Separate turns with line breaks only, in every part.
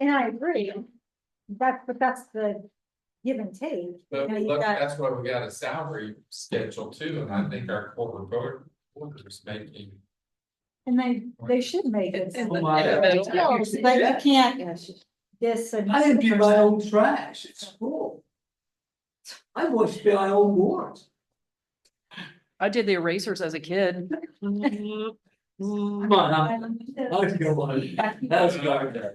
And I agree, that's, but that's the give and take.
But
Now you
look,
got-
that's why we got a salary schedule too, and I think our corporate board, board is making.
And they, they should make it.
And
Oh
the-
my
and
God.
the-
Yeah.
No, But you can't, this and.
I empty my own trash at school. I wash my own board.
I did the erasers as a kid.
Mm-hmm.
Come on, I'm, I'd go on, that's garbage.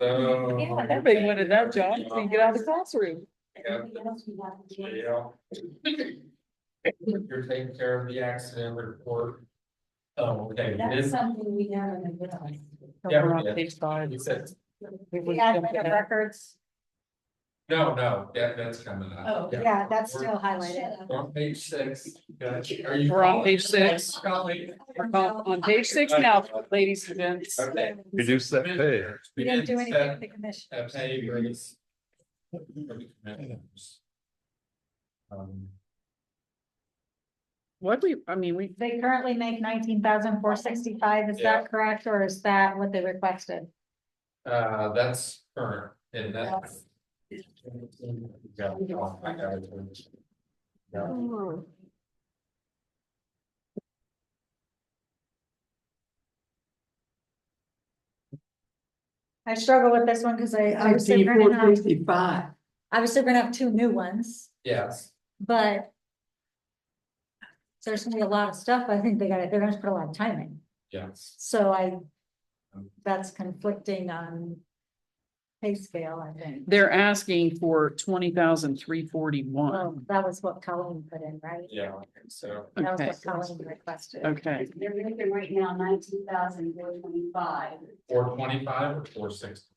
So.
Yeah,
Everybody wanted that job, so you get out of the classroom.
Yeah. You're taking care of the accident report. Oh, okay,
That's
this,
something we haven't done.
Yeah,
We're on
yeah.
page five.
you said,
It was
The admin of
jumping out.
records,
no, no, that, that's coming up.
Oh, yeah, that's still highlighted.
We're On page six, got you. are you?
We're on page six.
Golly.
We're on on page six now, ladies and gents.
Okay.
Reduce that pay.
We
We
didn't do anything
didn't set
with the commission.
a pay raise. Um,
What we, I mean, we,
They currently make nineteen thousand four sixty-five, is
Yeah.
that correct, or is that what they requested?
Uh, that's current, and that's.
Yes.
Yeah, oh my God. Yeah.
I struggle with this one, cause I, obviously
Empty
we're gonna
four
have,
fifty-five.
obviously we're gonna have two new ones,
Yes,
but. There's gonna be a lot of stuff, I think they gotta, they're gonna put a lot of time in,
yes.
so I, that's conflicting on. Pay scale, I think,
they're asking for twenty thousand three
well,
forty-one.
that was what Colleen put in, right?
Yeah, so,
That
Okay,
was what Colleen requested.
okay.
They're making right now nineteen thousand four twenty-five.
four twenty-five or four sixty,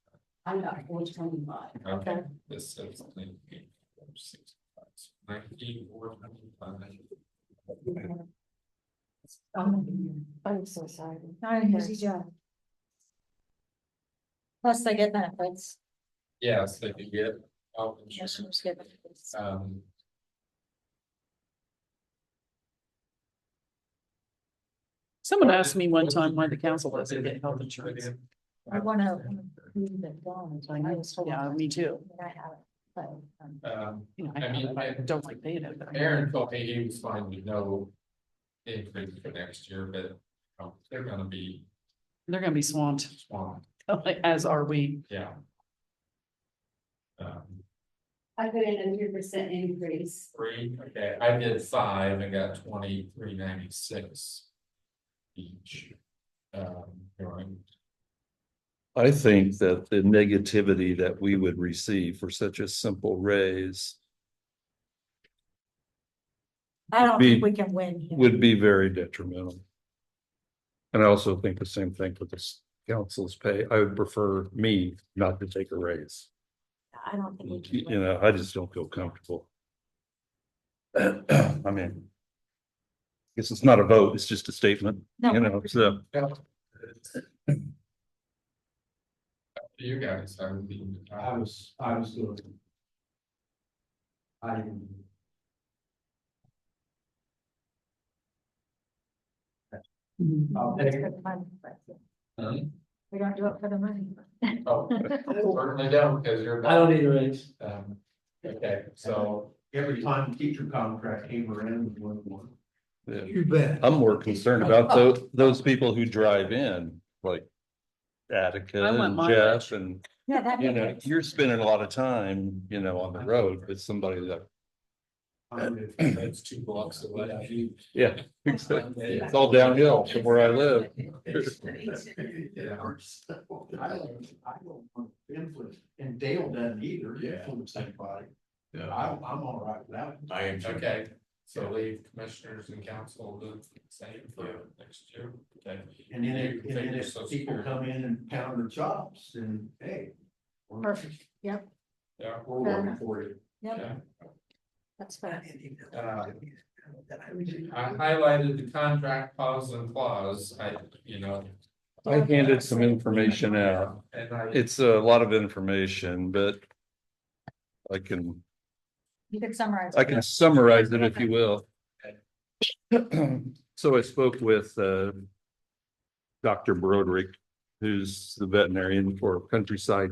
I got four twenty-five.
okay,
Okay.
this is. 19, 465, 19, 425.
I'm so sorry. Not an easy job. Plus they get benefits.
Yes, they can get. health insurance,
Commissioners get benefits.
Um,
Someone asked me one time why the council doesn't get health insurance.
I wanna leave it gone. so I know it's full of-
Yeah, me too.
I have it, but, um,
Um,
You know, I have it, I don't like paying it. but I-
Aaron told me he was fine with no increase for next year, but um, they're gonna be
They're gonna be swamped,
swamped,
as are we.
yeah. Um,
I put in a three percent increase.
three, okay, I did five and got twenty-three ninety-six each. Um, during,
I think that the negativity that we would receive for such a simple raise
I don't think
Be-
we can win. here.
would be very detrimental. And I also think the same thing with this council's pay. I would prefer me not to take a raise.
I don't think we can.
You
win.
know, I just don't feel comfortable. I mean, guess it's not a vote, it's just a statement,
No.
you know, so.
you guys, I would be.
I was, I was doing. I didn't. I'll
It's
take
for
it.
the money, but
Hmm?
We don't do it for the money.
Oh, Certainly don't, because you're.
I don't need a raise.
Um, okay, so,
Every time teacher contract came around, we won one.
yeah.
You bet.
I'm more concerned about those, those people who drive in, like Attica
I want
and
mine.
Jeff and,
Yeah, that.
you know, you're spending a lot of time, you know, on the road with somebody that.
I would-
that's two blocks away.
Yeah. It's all downhill from where I live.
Yeah. I don't, I don't want to influence, and Dale doesn't either, influence anybody. I, I'm all right with that. I am
Okay, so leave commissioners and council the same for next year, okay?
And then,
You
if-
can
and then
figure
if
Social
people
Security.
come in and pound their chops, then hey. we're-
Perfect, yep,
Yeah,
We're working for you.
yep,
yeah.
that's fine.
Uh, I highlighted the contract clause and clause, I, you know.
I handed some information out.
And I,
It's a lot of information, but I can,
You could summarize.
I can summarize it if you will. So I spoke with uh, Dr. Broderick, who's the veterinarian for Countryside